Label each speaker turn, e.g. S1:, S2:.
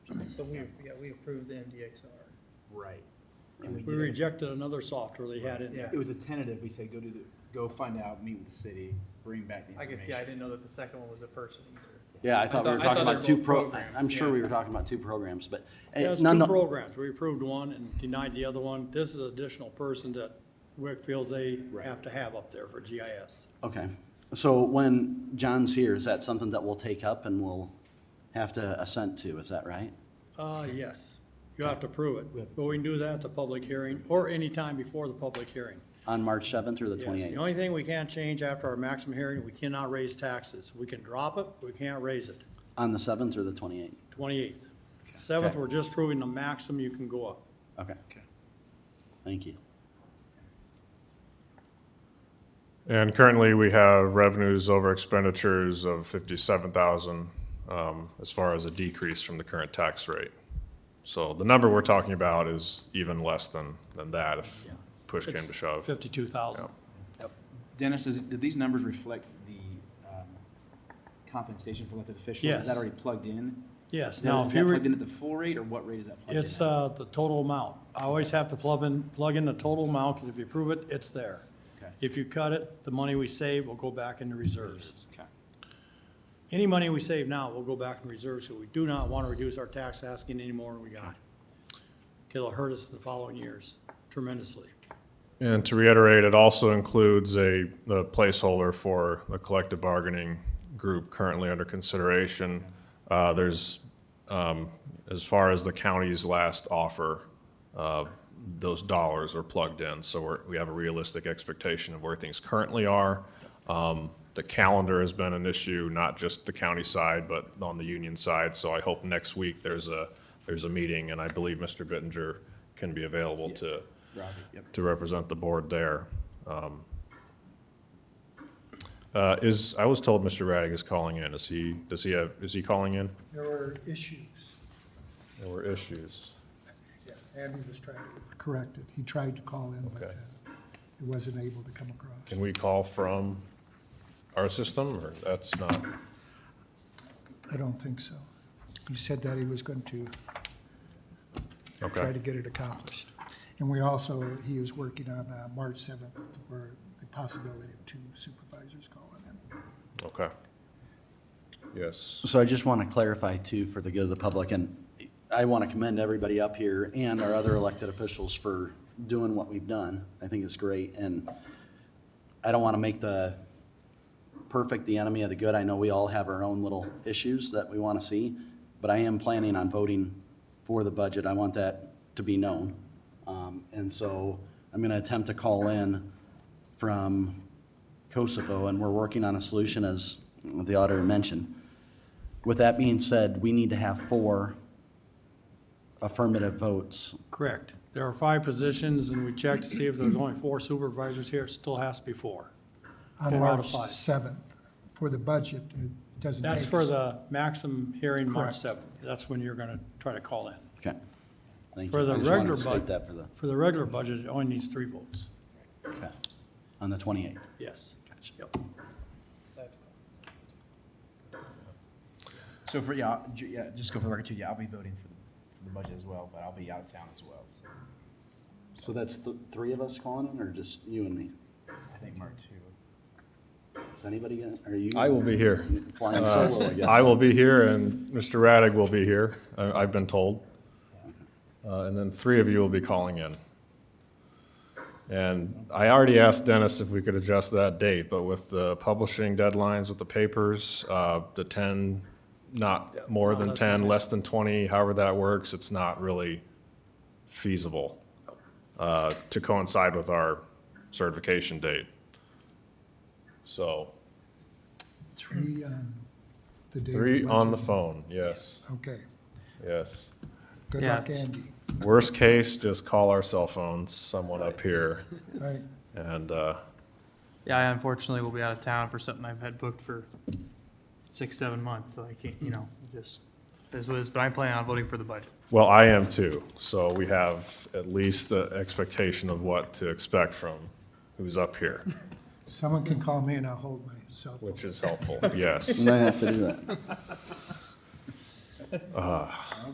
S1: so we, yeah, we approved the MDXR.
S2: Right. And
S3: We
S2: we just-
S3: rejected another software they had in there.
S2: It was a tentative, we said, go do the, go find out, meet with the city, bring back the
S1: I
S2: information.
S1: guess, yeah, I didn't know that the second one was a person either.
S4: Yeah, I thought we
S1: thought-
S4: were
S1: I
S4: talking
S1: thought
S4: about
S1: they were
S4: two
S1: both
S4: pro,
S1: programs,
S4: I'm sure
S1: yeah.
S4: we were talking about two programs, but. eh,
S3: That's
S4: none
S3: two
S4: of the-
S3: programs. We approved one and denied the other one. This is an additional person that WIC feels they
S4: Right.
S3: have to have up there for GIS.
S4: Okay, so when John's here, is that something that we'll take up and we'll have to assent to, is that right?
S3: Uh, yes, you have to prove it.
S2: With-
S3: But we can do that at the public hearing or any time before the public hearing.
S4: On March seventh or the
S3: Yes, the
S4: twenty-eighth?
S3: only thing we can't change after our maximum hearing, we cannot raise taxes. We can drop it, we can't raise it.
S4: On the seventh or the twenty-eighth?
S3: Twenty-eighth. Seventh,
S4: Okay.
S3: we're just proving the maximum you can go up.
S4: Okay.
S2: Okay.
S4: Thank you.
S5: And currently, we have revenues over expenditures of fifty-seven thousand, um, as far as a decrease from the current tax rate. So the number we're talking about is even less than, than that if
S3: Yeah.
S5: push came to shove.
S3: Fifty-two thousand.
S2: Dennis, is, did these numbers reflect the, um, compensation for elected officials? Is
S3: Yes.
S2: that already plugged in?
S3: Yes,
S2: Is
S3: now
S2: that,
S3: if
S2: is
S3: you
S2: that
S3: were.
S2: plugged in at the full rate, or what rate is that plugged in?
S3: It's
S2: at?
S3: uh, the total amount. I always have to plug in, plug in the total amount, because if you prove it, it's there.
S2: Okay.
S3: If you cut it, the money we save will go back into reserves.
S2: Okay.
S3: Any money we save now will go back in reserves, so we do not want to reduce our tax asking any more than we got. 'Cause It'll hurt us the following years tremendously.
S5: And to reiterate, it also includes a, a placeholder for the collective bargaining group currently under consideration. Uh, there's, um, as far as the county's last offer, uh, those dollars are plugged in, so we're, we have a realistic expectation of where things currently are. Um, the calendar has been an issue, not just the county side, but on the union side, so I hope next week there's a, there's a meeting, and I believe Mr. Bittinger can be available to,
S2: Robbie, yep.
S5: to represent the board there. Um, uh, Is, I was told Mr. Radig is calling in. Is he, does he have, is he calling in?
S6: There were issues.
S5: There were issues.
S6: Andy was trying to correct it. He tried to call in, but
S5: Okay.
S6: uh, he wasn't able to come across.
S5: Can we call from our system, or that's not?
S6: I don't think so. He said that he was going to try to
S5: Okay,
S6: get it accomplished. And we also, he is working on uh, March 7th, where the possibility of two supervisors calling in.
S5: okay. Yes.
S4: So I just want to clarify too, for the good of the public, and I want to commend everybody up here and our other elected officials for doing what we've done. I think it's great, and I don't want to make the perfect the enemy of the good. I know we all have our own little issues that we want to see, but I am planning on voting for the budget. I want that to be known. Um, And so I'm going to attempt to call in from Kosovo, and we're working on a solution, as the auditor mentioned. With that being said, we need to have four affirmative votes.
S3: Correct. There are five positions, and we checked to see if there's only four supervisors here, it still has to be four.
S6: On
S3: Four out
S6: March
S3: of five.
S6: 7th, for the budget, it doesn't take.
S3: That's for
S6: us-
S3: the maximum hearing March
S6: Correct.
S3: seventh. That's when you're gonna try to call in.
S4: Okay. Thank you.
S3: For the
S4: I just wanted
S3: regular
S4: to state
S3: budget.
S4: that for the,
S3: For the regular budget, it only needs three votes.
S4: okay, on the 28th.
S3: Yes.
S4: Gotcha.
S3: Yep.
S2: So for, yeah, ju- yeah, just go for the record too, yeah, I'll be voting for the, for the budget as well, but I'll be out of town as well, so
S4: So that's th- three of us calling in, or just you and me?
S2: I think Mark too.
S4: Is anybody, gonna- are you?
S5: I will be here.
S4: Flying solo, I guess.
S5: I will be here, and Mr. Radig will be here, I- I've been told. Uh, And then three of you will be calling in. And I already asked Dennis if we could adjust that date, but with the publishing deadlines with the papers, uh, the 10, not more
S3: No,
S5: than
S3: less than
S5: 10,
S3: 10.
S5: less than 20, however that works, it's not really feasible uh, to coincide with our certification date. So,
S6: Three on the day. of
S5: three on the
S6: budget.
S5: phone, yes,
S6: Okay.
S5: yes.
S6: Good
S1: Yeah,
S6: luck,
S1: it's-
S6: Andy.
S5: Worst case, just call our cell phones, someone up here,
S6: Right.
S5: and, uh,
S1: Yeah, I unfortunately will be out of town for something I've had booked for six, seven months, so I can't, you know, just, that's what it is, but I'm planning on voting for the budget.
S5: well, I am too, so we have at least the expectation of what to expect from who's up here,
S6: Someone can call me and I'll hold my cell phone.
S5: which is helpful, yes.
S4: Might have to do that.